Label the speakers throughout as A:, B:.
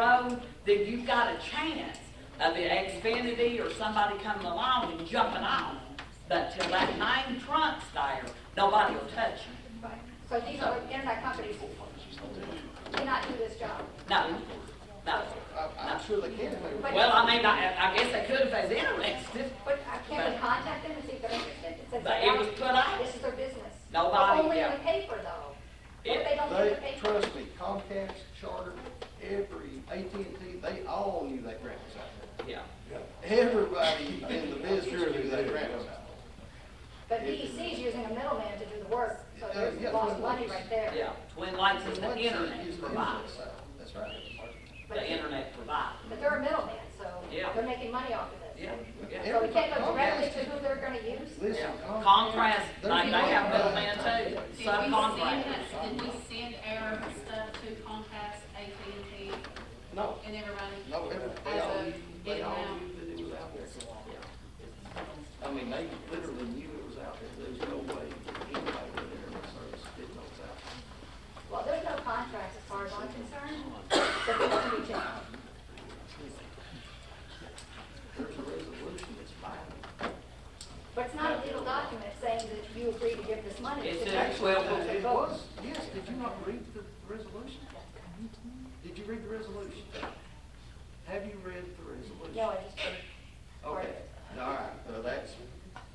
A: road, then you've got a chance of the Xfinity or somebody coming along and jumping on. But till that nine trunk's there, nobody will touch you.
B: Right. So these are internet companies cannot do this job.
A: No, no.
C: I'm sure they can.
B: But-
A: Well, I mean, I, I guess they could if they was interested.
B: But I can we contact them and see if they're interested? Since
A: But
B: they
A: it was
B: don't-
A: put out.
B: This is their business.
A: Nobody,
B: Only in
A: yeah.
B: the paper though. What if
A: It-
B: they don't get the
C: They,
B: paper?
C: trust me, Comcast, Charter, every, AT&T, they all knew that grant was out
A: Yeah.
C: there. Everybody in the business knew that grant was out
B: But PEC's using a middleman to do the work, so
C: Yeah,
B: there's
C: yeah,
B: lost
C: Twin
B: money
C: Lakes.
B: right there.
A: Yeah, Twin Lakes
C: there.
A: is the internet provider,
C: That's right.
A: the internet provider.
B: But they're a middleman, so
A: Yeah.
B: they're making money off of this.
A: Yeah, yeah.
B: So we can't go directly
C: Comcast-
B: to who they're gonna use?
C: Listen, Comcast.
A: Contrast,
C: they're
A: like they have
C: doing
A: middleman
C: that.
A: too,
D: Did we send
A: subcontractors.
D: that- Did we send our stuff to Comcast, AT&T,
C: No,
D: and everybody?
C: no, every- they
D: As
C: all,
D: of
C: knew- they
D: getting
C: all
D: out.
C: knew that it was out there. I mean, they literally knew it was out there. There was no way anybody would ever service did know it was out there.
B: Well, there's no contracts as far as I'm concerned, but they don't reach out.
C: There's a resolution that's binding.
B: But it's not a legal document saying that you agree to give this money.
A: It's
B: It's
A: an
B: just-
A: actual- Well,
C: It was, yes, did you not read the resolution? Did you read the resolution? Have you read the resolution?
B: No, I just,
C: Okay, all right, now that's,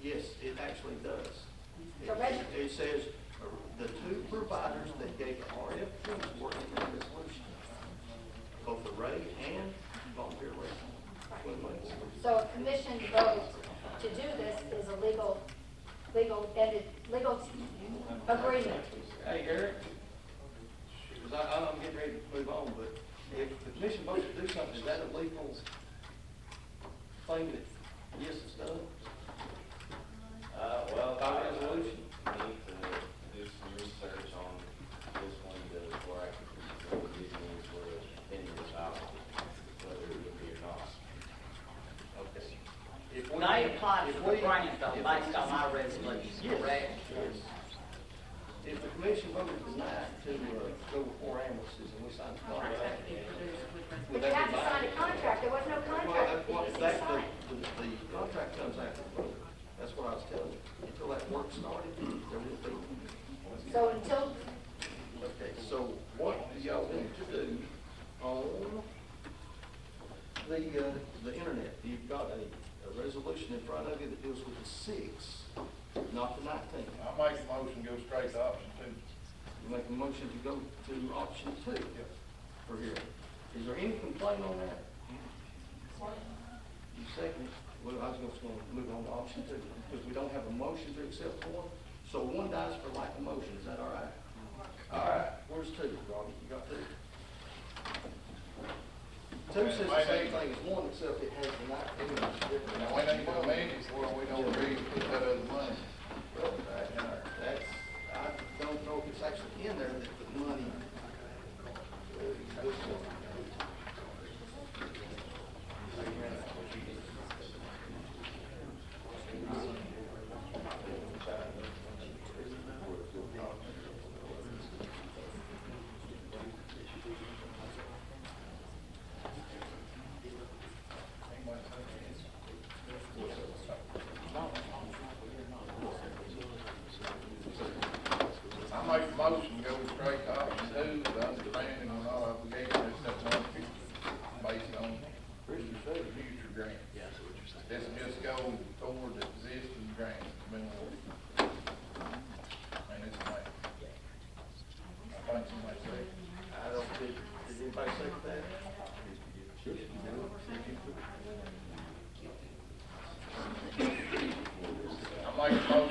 C: yes, it actually does.
B: The
C: It
B: reg-
C: it says, uh, the two providers that gave RFPs were in the resolution, both the Ray and Volunteer Ray. Twin Lakes.
B: so a commission vote to do this is a legal, legal, and it, legal agreement.
C: Hey, Eric, because I, I'm getting ready to move on, but if the commission votes to do something, is that a legal thing that, yes, it's done?
E: Uh, well,
C: By
E: I
C: resolution.
E: Need to do some research on this one to, before I can, before we get into the opinion about whether it would be or not.
C: Okay. If we-
A: They applied
C: if
A: for
C: we-
A: the grant though,
C: if-
A: based on my resolution,
C: Yes.
A: correct?
C: Yes. If the commission voted tonight to, uh, go with four ambulances and we signed the contract.
B: But you have to sign a contract, there was no
C: Well,
B: contract
C: that,
B: that
C: what,
B: PBC
C: that,
B: signed.
C: the, the the contract comes after the vote. That's what I was telling you. Until that work started, there would be.
B: So until,
C: Okay, so what do y'all need to do on the, uh, the internet? You've got a, a resolution in front of you that deals with the six, not the nineteen.
F: I make a motion, go straight to option two.
C: You make a motion to go to option two for here. Is there any complaint on that? You second, it. well, I was just gonna move on to option two, because we don't have a motion to accept one, so one dies for lack of motion, is that all right? All right, where's two, Robbie, you got two? Two says the same thing as one, except it has the nineteen, it's different.
F: Now, we ain't gonna need it before we don't agree to put that other money.
C: Well, uh, That's, I don't know if it's actually in there that the money. uh,
F: I make a motion, go straight to option two, with understanding on all obligations except one fifty, based on future grant. Yes. This just goes toward the existing grant that's been awarded. And it's like, I think somebody said.
C: I don't think, did anybody second that?
F: I make a motion